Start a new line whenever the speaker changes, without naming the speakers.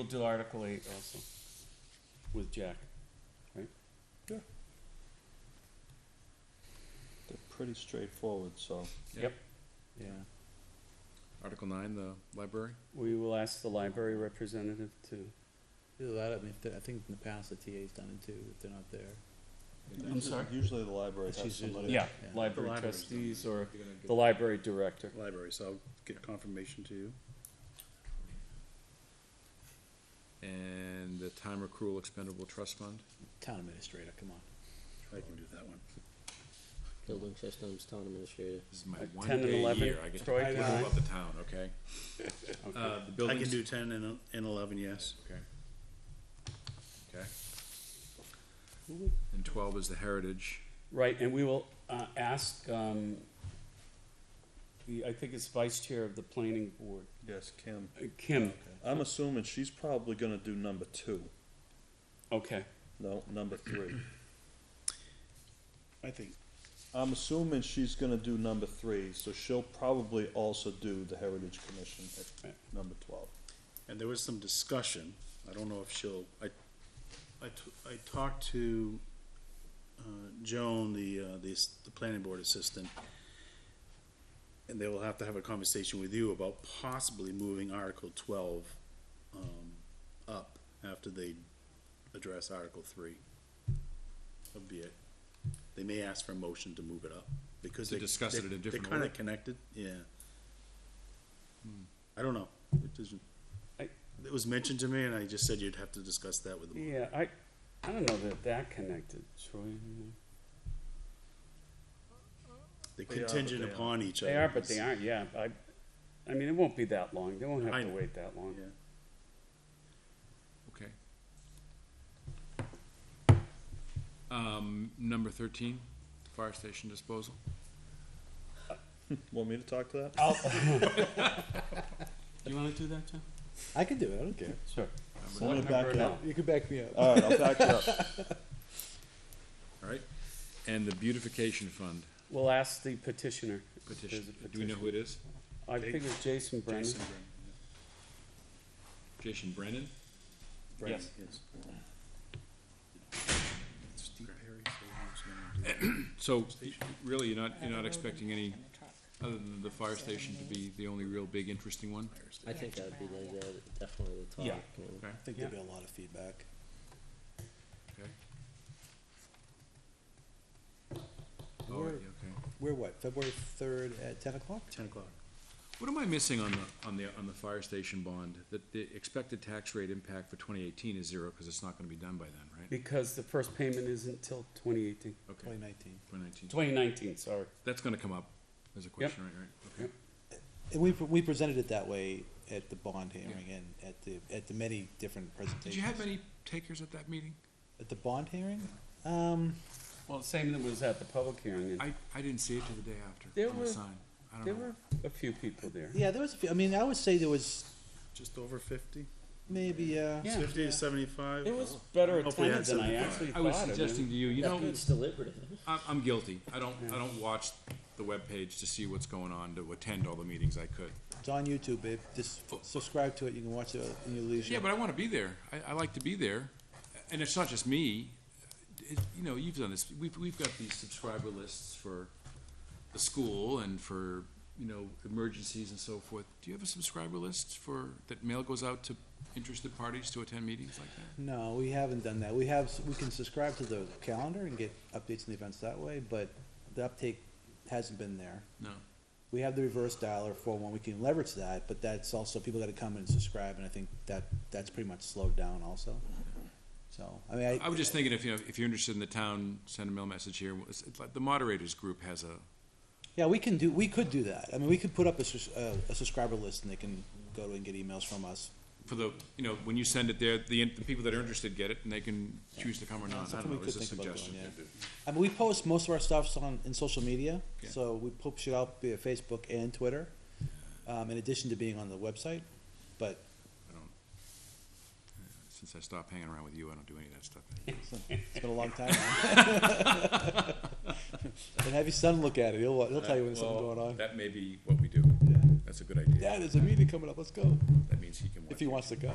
We'll do Article eight also, with Jack, right?
They're pretty straightforward, so,
Yeah.
Article nine, the library?
We will ask the library representative to,
Either that, I mean, if they- I think in the past the TA's done it too, if they're not there.
I'm sorry?
usually the library has
She's
somebody.
usually-
yeah,
Yeah.
library
library's
trustees or
You're gonna
the library director.
library, so I'll get confirmation to you.
get- And the time accrual expendable trust fund?
Town administrator, come on.
I can do that one.
Building systems, town administrator.
This is my
Uh,
one
10 and
day a
11,
year, I get to
Troy,
complain
can I-
about the town, okay? Uh, the
I
buildings.
can do ten and, and eleven, yes.
Okay. Okay. And twelve is the heritage.
Right, and we will, uh, ask, um, the, I think it's vice chair of the planning board,
Yes, Kim.
uh, Kim,
I'm assuming she's probably gonna do number two,
okay.
no, number three.
I think,
I'm assuming she's gonna do number three, so she'll probably also do the Heritage Commission at number twelve.
and there was some discussion, I don't know if she'll, I, I, t- I talked to, uh, Joan, the, uh, the, ass- the planning board assistant. And they will have to have a conversation with you about possibly moving Article twelve, um, up after they address Article three. That'd be it. They may ask for a motion to move it up, because
To
they.
discuss it
they-
in a different
They're
order?
kinda connected, yeah. I don't know, it doesn't.
I-
It was mentioned to me, and I just said you'd have to discuss that with them.
Yeah, I, I don't know that that connected, Troy. you
They
They are, but
contingent
they are.
upon each
know.
other.
They are, but they aren't, yeah, I, I mean, it won't be that long, they won't
I
have to
know.
wait that long.
Yeah.
Okay. Um, number thirteen, fire station disposal.
Want me to talk to that?
Do you wanna do that, John?
I can do it, I don't care.
Sure.
I'm gonna back it up.
You can back me up.
Alright, I'll back it up.
Alright. And the beautification fund
We'll ask the petitioner. if there's a
petition. Do we know who it is?
I think it was Jason Brennan.
Jason Brennan,
Jason Brennan?
yeah. Brennan,
Yes.
yes. Steve Perry said he was gonna do it.
So, really, you're not, you're not expecting any, other than the fire station to be the only real big interesting one?
I think that'd be the, the- definitely the top.
Yeah.
you know.
Okay,
I think there'd be a lot of feedback.
okay. Oh,
We're,
yeah, okay.
we're what, February third at ten o'clock?
Ten o'clock.
What am I missing on the, on the, on the fire station bond? That the expected tax rate impact for twenty eighteen is zero, cause it's not gonna be done by then, right?
Because the first payment isn't till 2018.
Okay,
Twenty nineteen.
twenty nineteen.
2019, sorry.
That's gonna come up as a question, right, right? Okay.
And we, we presented it that way at the bond hearing and at the, at the many different presentations.
Did you have many takers at that meeting?
At the bond hearing? Um,
Well, same that was at the public hearing. and
I, I didn't see it till the day
There
after, on
were-
the sign. I
There
don't know.
were a few people there.
yeah, there was a few, I mean, I would say there was
Just over fifty?
maybe, uh,
Yeah.
Fifty to seventy-five?
It was better
Hopefully
attended
that's
than I
something.
actually
I
thought.
was
mean,
suggesting to you, you
That
know.
means deliberative.
I'm, I'm guilty. I don't, I don't watch the webpage to see what's going on, to attend all the meetings I could.
it's on YouTube, babe, just subscribe to it, you can watch it in your leisure.
Yeah, but I wanna be there. I, I like to be there. And it's not just me. It, you know, you've done this. We've, we've got these subscriber lists for the school and for, you know, emergencies and so forth. Do you have a subscriber list for, that mail goes out to interested parties to attend meetings like that?
No, we haven't done that. We have, we can subscribe to the calendar and get updates on the events that way, but the uptake hasn't been there.
No.
We have the reverse dialer for one, we can leverage that, but that's also, people gotta come and subscribe, and I think that, that's pretty much slowed down also. So, I mean, I.
I was just thinking if, you know, if you're interested in the town, send a mail message here. It's like The moderators group has a,
Yeah, we can do, we could do that. I mean, we could put up a, sus- uh, a subscriber list and they can go to and get emails from us.
for the, you know, when you send it there, the, the people that are interested get it, and they can choose to come or not, I
Something
don't
we
know,
could
it's a
think about doing,
suggestion.
yeah. I mean, we post most of our stuffs on, in social media,
Yeah.
so we push it out via Facebook and Twitter, um, in addition to being on the website, but
I don't, yeah, since I stopped hanging around with you, I don't do any of that stuff.
It's been a long time. man. and have your son look at it. He'll, he'll tell you when there's something going on.
That may be what we do,
Yeah.
that's a good idea,
Dad, there's a meeting coming up. Let's go.
that means he can watch.
If he wants to go.